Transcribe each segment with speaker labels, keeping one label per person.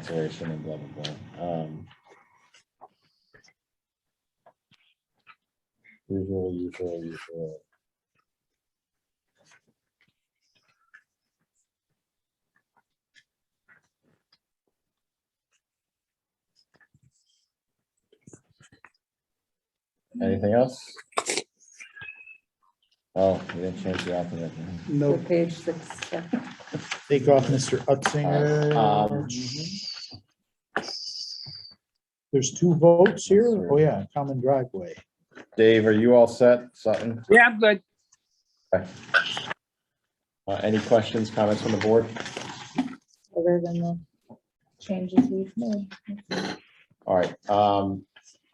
Speaker 1: conservation and blah, blah, blah. Um, Usual, usual, usual. Anything else? Oh, we didn't change the alphabet.
Speaker 2: No,
Speaker 3: So page six, uh,
Speaker 2: take off Mr.
Speaker 1: Uh, um,
Speaker 2: Utzinger. There's two votes here. Oh, yeah, common driveway.
Speaker 1: Dave, are you all set? Sutton?
Speaker 4: Yeah, I'm good.
Speaker 1: Uh, Any questions, comments from the board?
Speaker 3: other than the changes we've made.
Speaker 1: All right, um,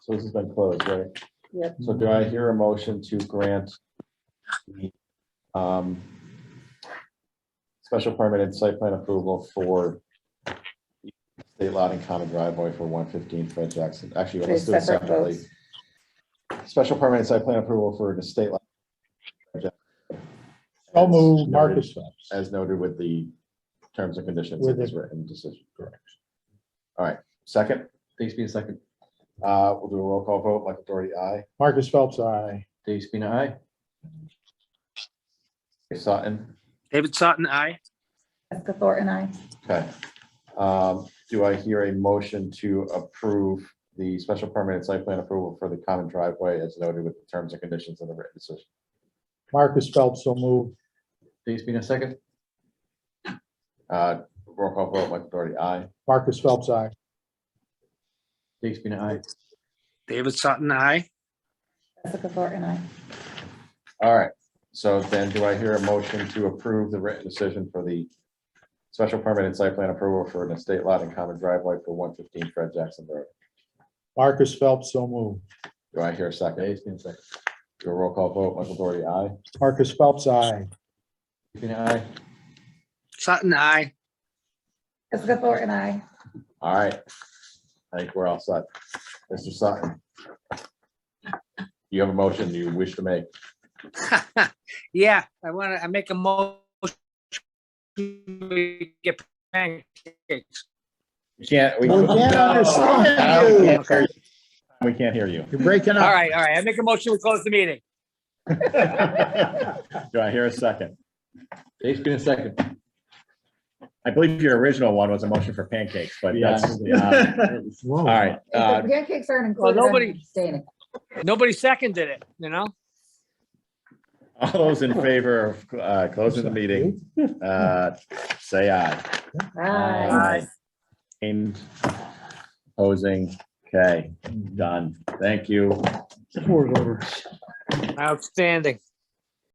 Speaker 1: so this has been closed, right?
Speaker 3: Yep.
Speaker 1: So do I hear a motion to grant the, um, special permit and site plan approval for state lot and common driveway for one fifteen Fred Jackson? Actually,
Speaker 3: Three
Speaker 1: let's do it
Speaker 3: separate
Speaker 1: separately.
Speaker 3: votes.
Speaker 1: Special permit and site plan approval for the state lot.
Speaker 2: So moved, Marcus Phelps.
Speaker 1: As noted with the terms and conditions in
Speaker 2: With
Speaker 1: this
Speaker 2: the-
Speaker 1: written decision.
Speaker 2: Correct.
Speaker 1: All right, second,
Speaker 5: Dave Spina second.
Speaker 1: uh, we'll do a roll call vote, Michael Doherty, aye.
Speaker 2: Marcus Phelps, aye.
Speaker 5: Dave Spina, aye.
Speaker 1: Sutton,
Speaker 4: David Sutton, aye.
Speaker 3: Jessica Thornton, I,
Speaker 1: okay. Um, do I hear a motion to approve the special permit and site plan approval for the common driveway as noted with the terms and conditions in the written decision?
Speaker 2: Marcus Phelps, so moved.
Speaker 5: Dave Spina second.
Speaker 1: Uh, roll call vote, Michael Doherty, aye.
Speaker 2: Marcus Phelps, aye.
Speaker 5: Dave Spina, aye.
Speaker 4: David Sutton, aye.
Speaker 3: Jessica Thornton, I,
Speaker 1: All right, so then do I hear a motion to approve the written decision for the special permit and site plan approval for an estate lot and common driveway for one fifteen Fred Jackson Road?
Speaker 2: Marcus Phelps, so moved.
Speaker 1: Do I hear a second?
Speaker 5: Dave Spina second.
Speaker 1: Do a roll call vote, Michael Doherty, aye.
Speaker 2: Marcus Phelps, aye.
Speaker 5: Dave Spina, aye.
Speaker 4: Sutton, aye.
Speaker 3: Jessica Thornton, I,
Speaker 1: All right. I think we're all set. Mr. Sutton. You have a motion you wish to make.
Speaker 4: Yeah, I want to, I make a motion. We Get pancakes.
Speaker 1: You can't. We
Speaker 2: We can't understand you.
Speaker 1: We can't hear you.
Speaker 2: You're breaking
Speaker 4: All
Speaker 2: up.
Speaker 4: right, all right. I make a motion, we close the meeting.
Speaker 1: Do I hear a second?
Speaker 5: Dave Spina second.
Speaker 1: I believe your original one was a motion for pancakes, but that's, uh, all
Speaker 2: Whoa.
Speaker 1: right. uh,
Speaker 3: If the pancakes aren't included. I'm
Speaker 4: nobody-
Speaker 3: abstaining.
Speaker 4: Nobody seconded it, you know?
Speaker 1: All those in favor of uh, closing the meeting, uh, say aye.
Speaker 3: Aye.
Speaker 1: And opposing, okay, done. Thank you.
Speaker 4: Outstanding.